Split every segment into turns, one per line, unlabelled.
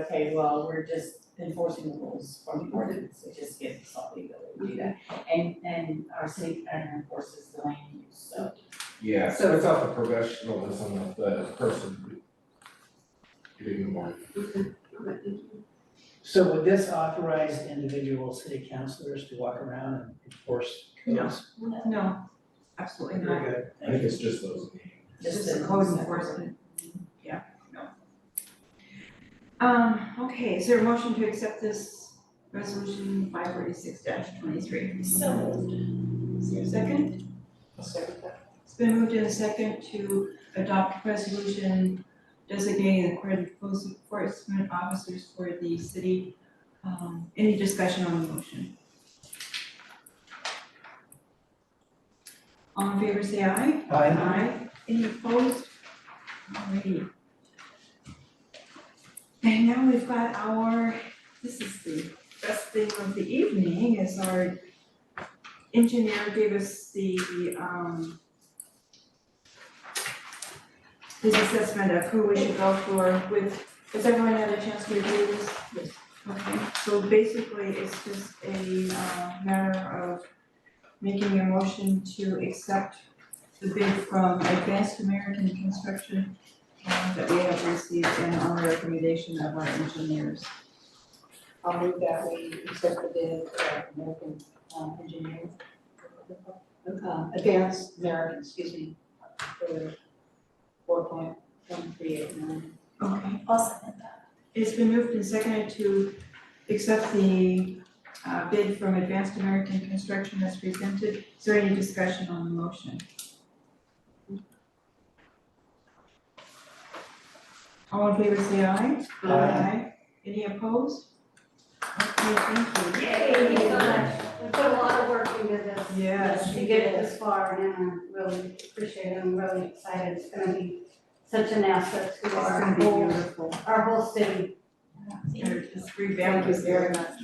okay, well, we're just enforcing the rules from the ordinance, it just gives something that we do that. And and our city planner enforces the land use, so
Yeah,
So-
so it's not the professionalism of the person doing the work.
So would this authorize individual city councilors to walk around and enforce codes?
No, absolutely not.
good.
I think it's just those names.
It's
just
just
in-
a code enforcement. Yeah, no. Um, okay, is there a motion to accept this resolution five forty-six twenty-three?
So moved.
Is there a second? It's been moved in a second to adopt resolution designating the court enforcement officers for the city. Um, any discussion on the motion? All in favor, say aye.
Aye.
Aye. Any opposed? Alrighty. And now we've got our, this is the best thing of the evening, is our engineer gave us the, um, his assessment of who we should go for with, has everyone had a chance to review this? Yes. Okay, so basically, it's just a, uh, matter of making a motion to accept the bid from Advanced American Construction uh, that we have received and on recommendation of our engineers.
I'll move that we accept the bid of American um, Engineering. uh, Advanced American, excuse me, for four point one three eight nine.
Okay.
I'll second that.
It's been moved and seconded to accept the uh, bid from Advanced American Construction as presented. Is there any discussion on the motion? All in favor, say aye.
Aye.
Any opposed? Okay, thank you. Yay!
so much. We put a lot of work into this.
Yes,
To get it this far and I'm really appreciate it. I'm really excited. It's gonna be such an asset to
It's
our
gonna be
whole,
beautiful.
our whole city.
They're just
Thank
revamped.
you very much.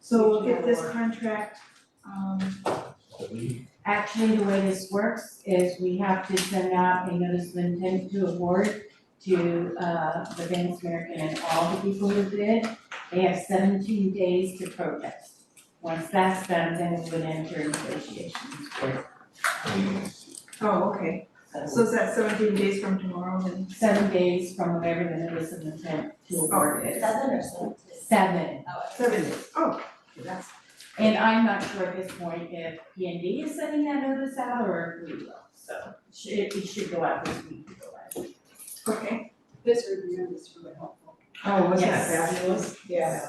So we'll get this contract, um,
But we-
Actually, the way this works is we have to send out a notice of intent to award to uh the Vance American and all the people who bid. They have seventeen days to protest. Once that's done, then we would enter negotiations with,
we-
oh, okay, so
so
is that seventeen days from tomorrow then?
seven days from whatever the notice of intent to award is.
Oh, Seven or seven?
Seven.
Seven days. Oh, that's,
And I'm not sure at this point if P and D is sending that notice out or if we will, so it it should go out this week, it go out.
okay.
This review is really helpful.
Oh, was that
Yes.
fabulous?
Yeah.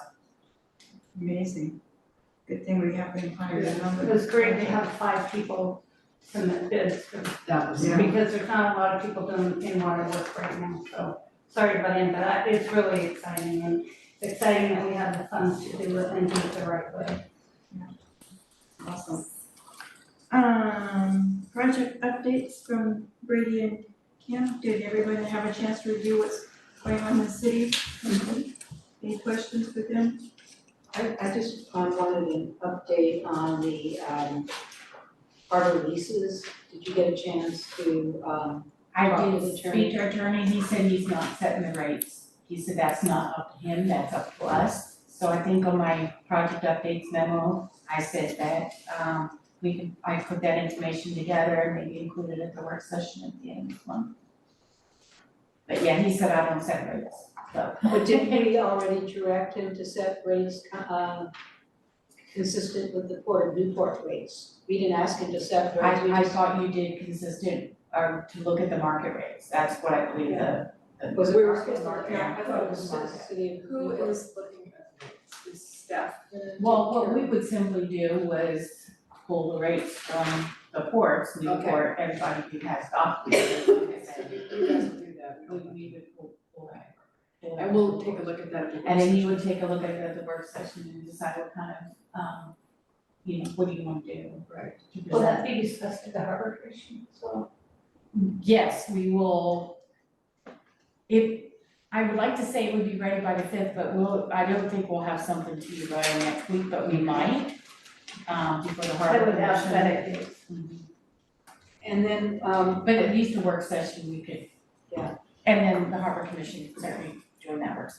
Amazing. Good thing we have been hired a number.
It was great to have five people submit bids for-
That was.
Yeah.
because there's not a lot of people doing in water work right now, so sorry about him, but I- it's really exciting and it's exciting that we have the funds to do it and do it the right way.
Awesome. Um, project updates from Brady and Kim. Did everyone have a chance to review what's going on in the city? Any questions with them?
I, I just uh, wanted an update on the, um, harbor leases. Did you get a chance to, um,
I
Well,
did
his
speak to our attorney, he said he's not setting the rates. He said that's not up to him, that's up to us. So I think on my project updates memo, I said that, um, we could, I put that information together and maybe include it at the work session at the end of the month. But yeah, he said I don't set rates, so.
but didn't we already direct him to set rates, uh, consistent with the Port of Newport rates? We didn't ask him to set rates, we
I, I
just,
thought you did consistent, or to look at the market rates, that's what I believe the, the.
was We it were market? supposed to- Yeah, I thought it was market. city of
Who
Newport.
is looking at this? Is staff? gonna
Well,
take
what
care
we would simply do was pull the rates from the ports, Newport, everybody who has dock leases, like I
of it? So
said,
you you guys will do that, we
we
don't.
we would pull, pull that.
And we'll take a look at that at the
And then you would take a look at it at the work session and decide what kind of, um, you know, what do you want to do?
Right.
to
Will
present.
that be discussed at the harbor commission as well?
Yes, we will. If, I would like to say it would be ready by the fifth, but we'll, I don't think we'll have something to you by next week, but we might. Um, before the
I
harbor
would
commission.
ask that it is.
Mhm.
And then, um,
But at least the work session, we could.
Yeah.
And then the harbor commission, certainly, during that work session.